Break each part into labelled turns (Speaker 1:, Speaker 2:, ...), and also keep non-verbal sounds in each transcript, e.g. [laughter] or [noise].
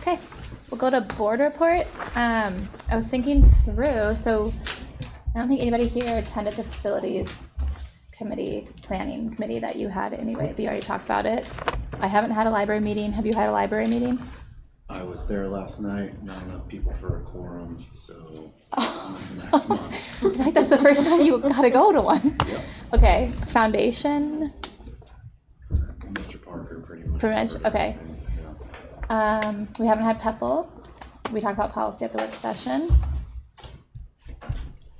Speaker 1: Okay, we'll go to board report. Um, I was thinking through, so I don't think anybody here attended the facilities committee, planning committee that you had anyway. We already talked about it. I haven't had a library meeting. Have you had a library meeting?
Speaker 2: I was there last night, not enough people for a quorum, so on to
Speaker 1: [laughs]
Speaker 2: next month.
Speaker 1: I think that's the first time you gotta go to one.
Speaker 2: Yep,
Speaker 1: Okay, foundation,
Speaker 2: Mr. Parker pretty much.
Speaker 1: Pretty much,
Speaker 2: covered
Speaker 1: okay.
Speaker 2: everything, yeah.
Speaker 1: um, we haven't had PEPL. We talked about policy at the work session.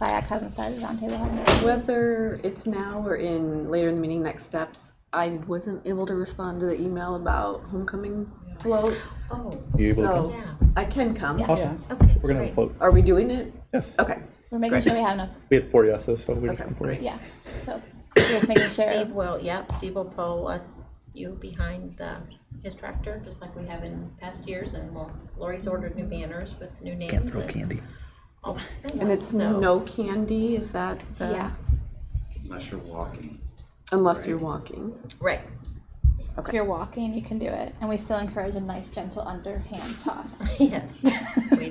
Speaker 1: SiAC hasn't started, roundtable hasn't started.
Speaker 3: Whether it's now or in later in the meeting, next steps, I wasn't able to respond to the email about homecoming float,
Speaker 4: Oh,
Speaker 5: You able to come?
Speaker 3: so
Speaker 4: yeah,
Speaker 3: I can come.
Speaker 1: Yeah.
Speaker 5: Awesome.
Speaker 4: okay.
Speaker 5: We're gonna have
Speaker 4: great.
Speaker 5: a float.
Speaker 3: Are we doing it?
Speaker 5: Yes.
Speaker 3: Okay.
Speaker 1: We're making sure we have enough,
Speaker 5: We had four yeses, so we just
Speaker 3: Oh. Okay,
Speaker 5: have four. yes.
Speaker 1: yeah, so we're just making sure.
Speaker 4: Steve will, yep, Steve will pull us, you behind the, his tractor, just like we have in past years, and we'll, Lori's ordered new banners with new names and.
Speaker 5: candy.
Speaker 4: all those things,
Speaker 3: And it's
Speaker 4: so-
Speaker 3: no candy, is that the?
Speaker 1: Yeah.
Speaker 2: Unless you're walking.
Speaker 3: Unless you're walking.
Speaker 4: Right, [laughs]
Speaker 1: If you're walking, you can do it, and we still encourage a nice gentle underhand toss.
Speaker 4: yes, we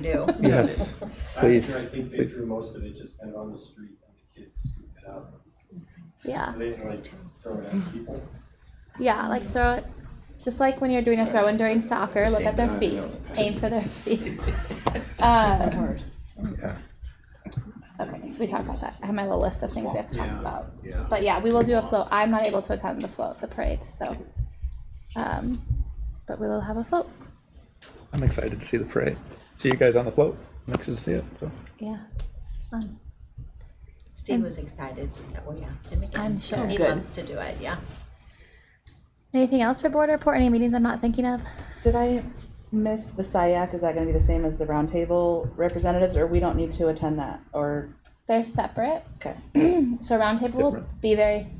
Speaker 3: [laughs]
Speaker 4: do.
Speaker 5: Yes, please.
Speaker 6: After I think they threw most of it just kind of on the street and the kids scooped it up.
Speaker 1: Yeah,
Speaker 6: They didn't like throw it at people.
Speaker 1: yeah, like throw it, just like when you're doing a throw-in during soccer, look at their feet, aim for their [laughs] feet. Um,
Speaker 5: Yeah.
Speaker 1: okay, so we talked about that. I have my little list of things we have to talk
Speaker 2: Yeah,
Speaker 1: about.
Speaker 2: Yeah.
Speaker 1: But yeah, we will do a float. I'm not able to attend the float, the parade, so. Um, but we will have a float.
Speaker 5: I'm excited to see the parade. See you guys on the float. I'm excited to see it. So.
Speaker 1: Yeah, fun.
Speaker 4: Steve was excited that we asked him again.
Speaker 1: I'm
Speaker 4: so
Speaker 1: sure.
Speaker 4: He
Speaker 3: Good.
Speaker 4: loves to do it, yeah.
Speaker 1: Anything else for board report? Any meetings I'm not thinking of?
Speaker 7: Did I miss the SIAC? Is that gonna be the same as the roundtable representatives, or we don't need to attend that, or,
Speaker 1: They're separate.
Speaker 7: okay?
Speaker 1: [clears throat] So roundtable will
Speaker 5: different.
Speaker 1: be very s-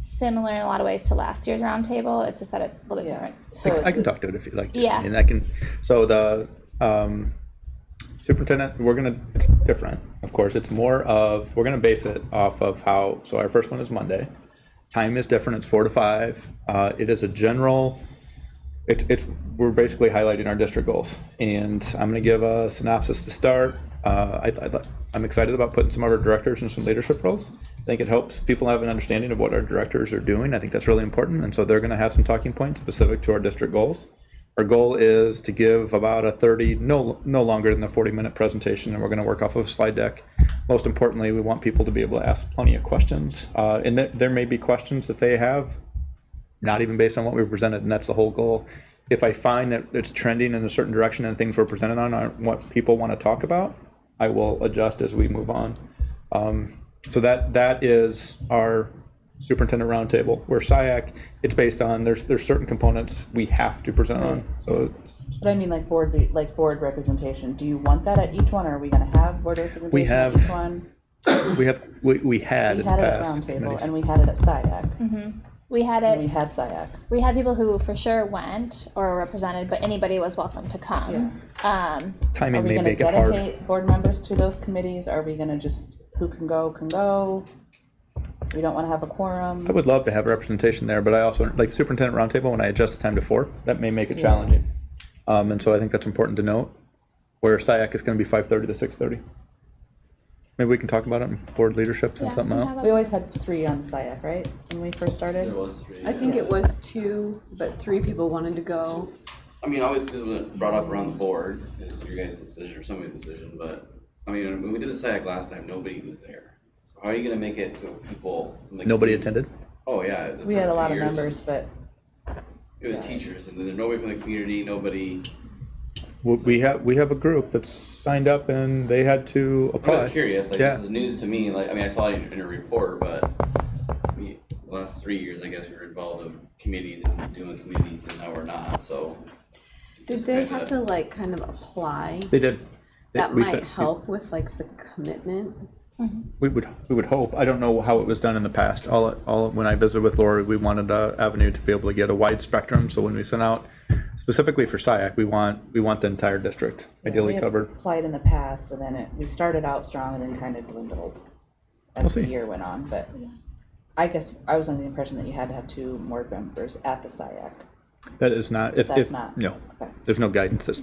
Speaker 1: similar in a lot of ways to last year's roundtable. It's a set up a little bit
Speaker 7: Yeah.
Speaker 1: different.
Speaker 7: So
Speaker 5: I can
Speaker 7: it's,
Speaker 5: talk to it if you like.
Speaker 1: Yeah.
Speaker 5: And I can, so the um, superintendent, we're gonna, it's different, of course. It's more of, we're gonna base it off of how, so our first one is Monday. Time is different, it's four to five. Uh, It is a general, it's, it's, we're basically highlighting our district goals. And I'm gonna give a synopsis to start. Uh, I, I'd like- I'm excited about putting some of our directors in some leadership roles. I think it helps people have an understanding of what our directors are doing. I think that's really important. And so they're gonna have some talking points specific to our district goals. Our goal is to give about a 30, no, no longer than a 40-minute presentation, and we're going to work off of a slide deck. Most importantly, we want people to be able to ask plenty of questions, uh, and there, there may be questions that they have, not even based on what we presented, and that's the whole goal. If I find that it's trending in a certain direction and things we're presented on aren't what people want to talk about, I will adjust as we move on. Um, So that, that is our superintendent roundtable, where SiAC, it's based on, there's, there's certain components we have to present on. So
Speaker 7: but I mean, like, board, le- like, board representation, do you want that at each one, or are we gonna have board representation at
Speaker 5: have-
Speaker 7: each one?
Speaker 5: we have, we, we had
Speaker 7: We
Speaker 5: in the
Speaker 7: had it at
Speaker 5: past.
Speaker 7: roundtable,
Speaker 5: committees.
Speaker 7: and we had it at SIAC,
Speaker 1: We had
Speaker 7: and we
Speaker 1: it.
Speaker 7: had SIAC.
Speaker 1: We had people who for sure went or were represented, but anybody was welcome to come. Um,
Speaker 7: Are
Speaker 5: Timing
Speaker 7: we
Speaker 5: may
Speaker 7: gonna
Speaker 5: make it hard.
Speaker 7: dedicate board members to those committees, are we gonna just, who can go, can go? We don't wanna have a
Speaker 5: I
Speaker 7: quorum,
Speaker 5: would love to have representation there, but I also, like superintendent roundtable, when I adjust the time to four, that may make it challenging. Um, and so I think that's important to note, where SiAC is gonna be five thirty to six thirty. Maybe we can talk about it in board leadership
Speaker 1: yeah,
Speaker 5: and something
Speaker 1: we
Speaker 5: else.
Speaker 1: have a-
Speaker 7: we always had three on SIAC, right, when we first started?
Speaker 8: There was three.
Speaker 3: I think it was two, but three people wanted to go.
Speaker 8: I mean, always this was brought up around the board, it's your guys' decision or somebody's decision, but, I mean, when we did the SAC last time, nobody was there. So How are you gonna make it to people? from the
Speaker 5: Nobody
Speaker 8: community-
Speaker 5: attended?
Speaker 8: Oh, yeah. the
Speaker 7: We had a
Speaker 8: first two
Speaker 7: lot of
Speaker 8: years,
Speaker 7: members, but
Speaker 8: It was teachers, and then there's nobody from the community, nobody,
Speaker 5: We- We have, we have a group that's signed up and they had to
Speaker 8: I
Speaker 5: apply.
Speaker 8: was curious, like, this
Speaker 5: Oh, Yeah.
Speaker 8: is news to me, like, I mean, I saw it in your report, but we, the last three years, I guess, we were involved in committees and doing committees, and now we're not, so. it's
Speaker 3: Did
Speaker 8: just
Speaker 3: they
Speaker 8: kinda-
Speaker 3: have to like kind of apply?
Speaker 5: They did. They-
Speaker 3: That
Speaker 5: we
Speaker 3: might
Speaker 5: said-
Speaker 3: help with like the commitment.
Speaker 5: We would, we would hope. I don't know how it was done in the past. All, all, when I visited with Lori, we wanted a avenue to be able to get a wide spectrum. So when we sent out specifically for SiAC, we want, we want the entire district
Speaker 7: Yeah, we
Speaker 5: ideally
Speaker 7: had
Speaker 5: covered.
Speaker 7: Applied in the past, and then it, we started out strong and then kind of dwindled
Speaker 5: We'll
Speaker 7: as the
Speaker 5: see.
Speaker 7: year went on, but I guess I was under the impression that you had to have two board members at the SIAC.
Speaker 5: That is not, if,
Speaker 7: That's
Speaker 5: if,
Speaker 7: not-
Speaker 5: no,
Speaker 7: okay.
Speaker 5: there's no guidance that's